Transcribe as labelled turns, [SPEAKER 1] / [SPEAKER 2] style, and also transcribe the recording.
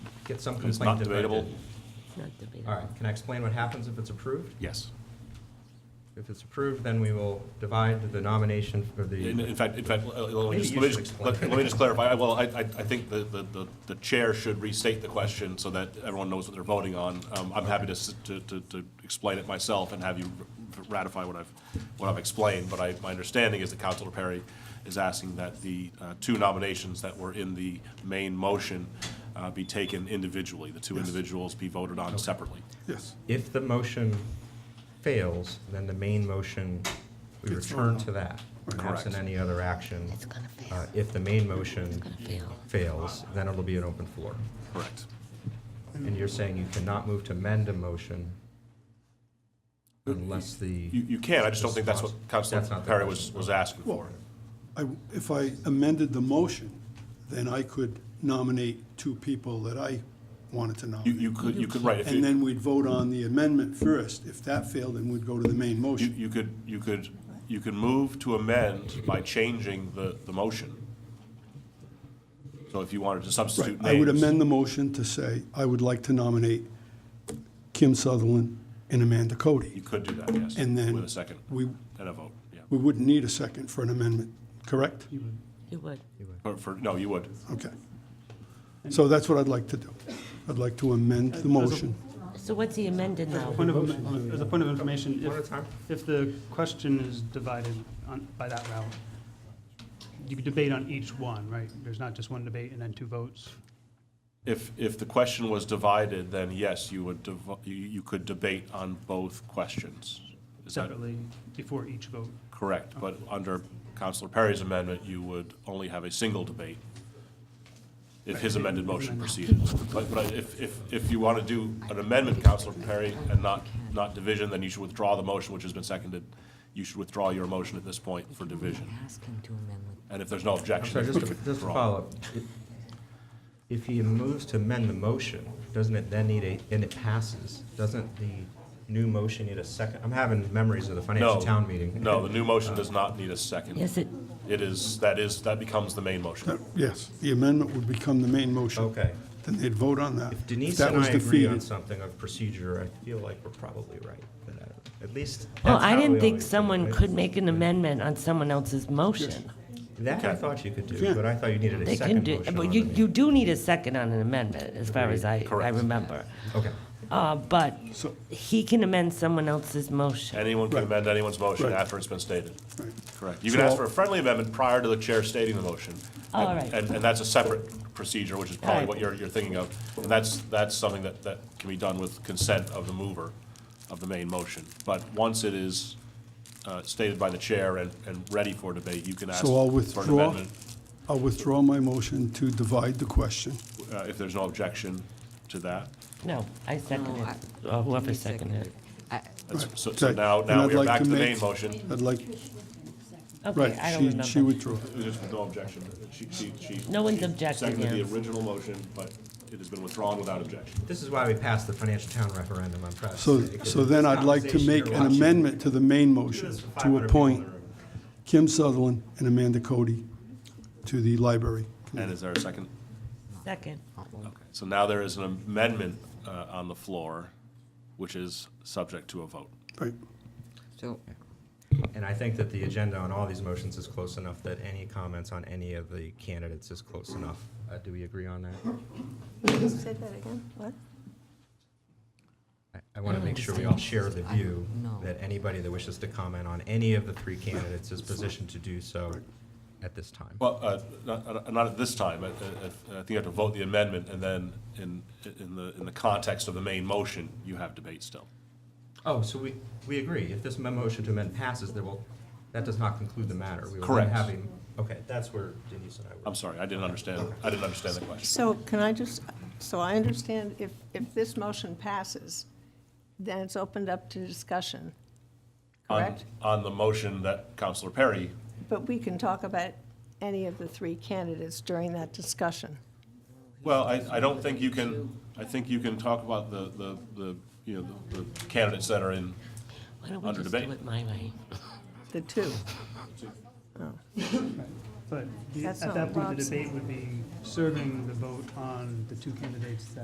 [SPEAKER 1] get some
[SPEAKER 2] It's
[SPEAKER 1] complaint. if
[SPEAKER 2] not
[SPEAKER 1] I did.
[SPEAKER 2] debatable?
[SPEAKER 3] Not debatable.
[SPEAKER 1] All right, can I explain what happens if it's approved?
[SPEAKER 2] Yes.
[SPEAKER 1] If it's approved, then we will divide the nomination for
[SPEAKER 2] In,
[SPEAKER 1] the,
[SPEAKER 2] in fact, in fact, uh, let let me
[SPEAKER 1] Maybe
[SPEAKER 2] just,
[SPEAKER 1] you
[SPEAKER 2] let me
[SPEAKER 1] should
[SPEAKER 2] just,
[SPEAKER 1] explain.
[SPEAKER 2] let let me just clarify. I- Well, I, I, I think the, the, the- the chair should restate the question so that everyone knows what they're voting on. Um, I'm happy to, s- to, to, to explain it myself and have you r- ratify what I've, what I've explained. But I, my understanding is that Counselor Perry is asking that the, uh, two nominations that were in the main motion, uh, be taken individually. The two individuals be voted on separately.
[SPEAKER 4] Yes.
[SPEAKER 1] if the motion fails, then the main motion, we
[SPEAKER 4] It's
[SPEAKER 1] return
[SPEAKER 4] not-
[SPEAKER 1] to that.
[SPEAKER 2] Correct.
[SPEAKER 1] Absent any other action.
[SPEAKER 3] It's gonna fail.
[SPEAKER 1] Uh, If the main motion
[SPEAKER 3] gonna fail.
[SPEAKER 1] fails, then it'll be an open floor.
[SPEAKER 2] Correct.
[SPEAKER 1] And you're saying you cannot move to amend a motion unless
[SPEAKER 2] You,
[SPEAKER 1] the,
[SPEAKER 2] you can, I just don't think that's what Counselor
[SPEAKER 1] That's not the
[SPEAKER 2] Perry was,
[SPEAKER 1] question.
[SPEAKER 2] was asking for.
[SPEAKER 4] I, if I amended the motion, then I could nominate two people that I wanted to
[SPEAKER 2] You,
[SPEAKER 4] nominate.
[SPEAKER 2] you could, you could, right. if you-
[SPEAKER 4] And then we'd vote on the amendment first. If that failed, then we'd go to the main
[SPEAKER 2] You,
[SPEAKER 4] motion.
[SPEAKER 2] you could, you could, you could move to amend by changing the, the motion. So if you wanted to
[SPEAKER 4] Right,
[SPEAKER 2] substitute names.
[SPEAKER 4] I would amend the motion to say, I would like to nominate Kim Sutherland and Amanda
[SPEAKER 2] You
[SPEAKER 4] Cody.
[SPEAKER 2] could do that, yes.
[SPEAKER 4] And then
[SPEAKER 2] With a second.
[SPEAKER 4] we-
[SPEAKER 2] And a vote, yeah.
[SPEAKER 4] We wouldn't need a second for an amendment, correct?
[SPEAKER 3] You would.
[SPEAKER 2] For, for, no, you would.
[SPEAKER 4] Okay. So that's what I'd like to do. I'd like to amend the motion.
[SPEAKER 3] So what's he amended now?
[SPEAKER 5] Point of, as a point of information,
[SPEAKER 1] One at a
[SPEAKER 5] if,
[SPEAKER 1] time.
[SPEAKER 5] if the question is divided on, by that route, you could debate on each one, right? There's not just one debate and then two votes.
[SPEAKER 2] If, if the question was divided, then yes, you would, devo- you, you could debate on both questions. Is that
[SPEAKER 5] separately before each vote.
[SPEAKER 2] correct? But under Counselor Perry's amendment, you would only have a single debate if his amended motion proceeded. But, but if, if, if you want to do an amendment, Counselor Perry, and not, not division, then you should withdraw the motion which has been seconded. You should withdraw your motion at this point for division.
[SPEAKER 3] Ask him to amend with.
[SPEAKER 2] And if there's no
[SPEAKER 1] I'm
[SPEAKER 2] objection,
[SPEAKER 1] sorry, just to, just to
[SPEAKER 2] withdraw.
[SPEAKER 1] follow up. If he moves to amend the motion, doesn't it then need a, and it passes, doesn't the new motion need a second? I'm having memories of the
[SPEAKER 2] No.
[SPEAKER 1] financial town meeting.
[SPEAKER 2] No, the new motion does not need a second.
[SPEAKER 3] Yes, it,
[SPEAKER 2] It is, that is, that becomes the main motion.
[SPEAKER 4] That- Yes, the amendment would become the main motion.
[SPEAKER 1] Okay.
[SPEAKER 4] Then they'd vote on that.
[SPEAKER 1] If Denise
[SPEAKER 4] that
[SPEAKER 1] and
[SPEAKER 4] was
[SPEAKER 1] I agree on
[SPEAKER 4] defeated-
[SPEAKER 1] something of procedure, I feel like we're probably right, but I don't- at least.
[SPEAKER 3] well,
[SPEAKER 1] that's
[SPEAKER 3] I
[SPEAKER 1] how we
[SPEAKER 3] didn't think
[SPEAKER 1] always do it,
[SPEAKER 3] someone
[SPEAKER 1] right?
[SPEAKER 3] could make an amendment on someone else's motion.
[SPEAKER 1] That I
[SPEAKER 2] Okay.
[SPEAKER 1] thought you could do,
[SPEAKER 4] Yeah.
[SPEAKER 1] but I thought you needed a
[SPEAKER 3] They can
[SPEAKER 1] second
[SPEAKER 3] do,
[SPEAKER 1] motion on
[SPEAKER 3] but
[SPEAKER 1] the
[SPEAKER 3] you, you
[SPEAKER 1] main.
[SPEAKER 3] do need a second on an amendment, as far as I, I
[SPEAKER 2] Correct.
[SPEAKER 3] remember.
[SPEAKER 1] Okay.
[SPEAKER 3] Uh, but
[SPEAKER 4] So-
[SPEAKER 3] he can amend someone else's motion.
[SPEAKER 2] Anyone can
[SPEAKER 4] Right.
[SPEAKER 2] amend anyone's motion
[SPEAKER 4] Right.
[SPEAKER 2] after it's been stated.
[SPEAKER 4] Right.
[SPEAKER 2] Correct. You can ask for a friendly amendment prior to the chair stating the motion.
[SPEAKER 3] All
[SPEAKER 2] And-
[SPEAKER 3] right.
[SPEAKER 2] And, and that's a separate procedure, which is probably
[SPEAKER 3] Right.
[SPEAKER 2] what you're, you're thinking of. And that's, that's something that, that can be done with consent of the mover of the main motion. But once it is uh, stated by the chair and, and ready for debate, you can ask
[SPEAKER 4] So I'll
[SPEAKER 2] for an
[SPEAKER 4] withdraw,
[SPEAKER 2] amendment
[SPEAKER 4] I'll withdraw my motion to divide the question.
[SPEAKER 2] uh, if there's no objection to that.
[SPEAKER 3] No, I second
[SPEAKER 6] No, I-
[SPEAKER 3] it, or whoever
[SPEAKER 6] He
[SPEAKER 3] seconded it.
[SPEAKER 6] I-
[SPEAKER 2] That's-
[SPEAKER 4] Right.
[SPEAKER 2] So, so
[SPEAKER 4] Okay.
[SPEAKER 2] now,
[SPEAKER 4] And
[SPEAKER 2] now
[SPEAKER 4] I'd
[SPEAKER 2] we are
[SPEAKER 4] like
[SPEAKER 2] back
[SPEAKER 4] to
[SPEAKER 2] to the
[SPEAKER 4] make-
[SPEAKER 2] main motion.
[SPEAKER 4] I'd like,
[SPEAKER 3] Okay,
[SPEAKER 4] right,
[SPEAKER 3] I don't
[SPEAKER 4] she, she
[SPEAKER 3] remember.
[SPEAKER 4] withdrew.
[SPEAKER 2] Just with no objection. She, she, she.
[SPEAKER 3] No one's
[SPEAKER 2] she
[SPEAKER 3] objected,
[SPEAKER 2] Seconded
[SPEAKER 3] yeah.
[SPEAKER 2] the original motion, but it has been withdrawn without objection.
[SPEAKER 1] This is why we passed the financial town referendum, I'm proud to
[SPEAKER 4] So,
[SPEAKER 1] say, 'cause
[SPEAKER 4] so then I'd like to
[SPEAKER 1] conversation
[SPEAKER 4] make
[SPEAKER 1] you're
[SPEAKER 4] an
[SPEAKER 1] watching.
[SPEAKER 4] amendment to the main motion
[SPEAKER 1] There's 500
[SPEAKER 4] to
[SPEAKER 1] people in the
[SPEAKER 4] appoint
[SPEAKER 1] room.
[SPEAKER 4] Kim Sutherland and Amanda Cody to the library.
[SPEAKER 2] And is there a second?
[SPEAKER 3] Second,
[SPEAKER 2] Okay, so now there is an amendment uh, on the floor, which is subject to a vote.
[SPEAKER 4] Right,
[SPEAKER 6] So,
[SPEAKER 1] And I think that the agenda on all these motions is close enough that any comments on any of the candidates is close enough. Uh, Do we agree on that?
[SPEAKER 7] Say that again, what?
[SPEAKER 1] I- I want to
[SPEAKER 3] don't
[SPEAKER 1] make sure we all
[SPEAKER 3] understand
[SPEAKER 1] share
[SPEAKER 3] this.
[SPEAKER 1] the
[SPEAKER 3] I don't
[SPEAKER 1] view
[SPEAKER 3] know.
[SPEAKER 1] that anybody that wishes to comment on any of the three candidates is positioned to do so at this time.
[SPEAKER 2] Well, uh, not- uh, not at this time. I I- I think you have to vote the amendment, and then in in the in the context of the main motion, you have debate still.
[SPEAKER 1] Oh, so we, we agree. If this mem- motion to amend passes, there will, that does not conclude the matter. We will then
[SPEAKER 2] Correct.
[SPEAKER 1] have a- Okay, that's where Denise and I were.
[SPEAKER 2] I'm sorry, I didn't understand, I didn't understand the question.
[SPEAKER 7] So can I just, so I understand if, if this motion passes, then it's opened up to discussion,
[SPEAKER 2] On-
[SPEAKER 7] correct?
[SPEAKER 2] On the motion that Counselor Perry,
[SPEAKER 7] But we can talk about any of the three candidates during that discussion.
[SPEAKER 2] well, I I don't think you can, I think you can talk about the, the the you know, the the candidates that are in,
[SPEAKER 3] why don't we
[SPEAKER 2] Under
[SPEAKER 3] just do
[SPEAKER 2] debate.
[SPEAKER 3] it my way?
[SPEAKER 7] The two,
[SPEAKER 5] But the-
[SPEAKER 7] That's
[SPEAKER 5] at
[SPEAKER 7] not
[SPEAKER 5] that point, the
[SPEAKER 7] Rob's-
[SPEAKER 5] debate would be serving the vote on the two candidates that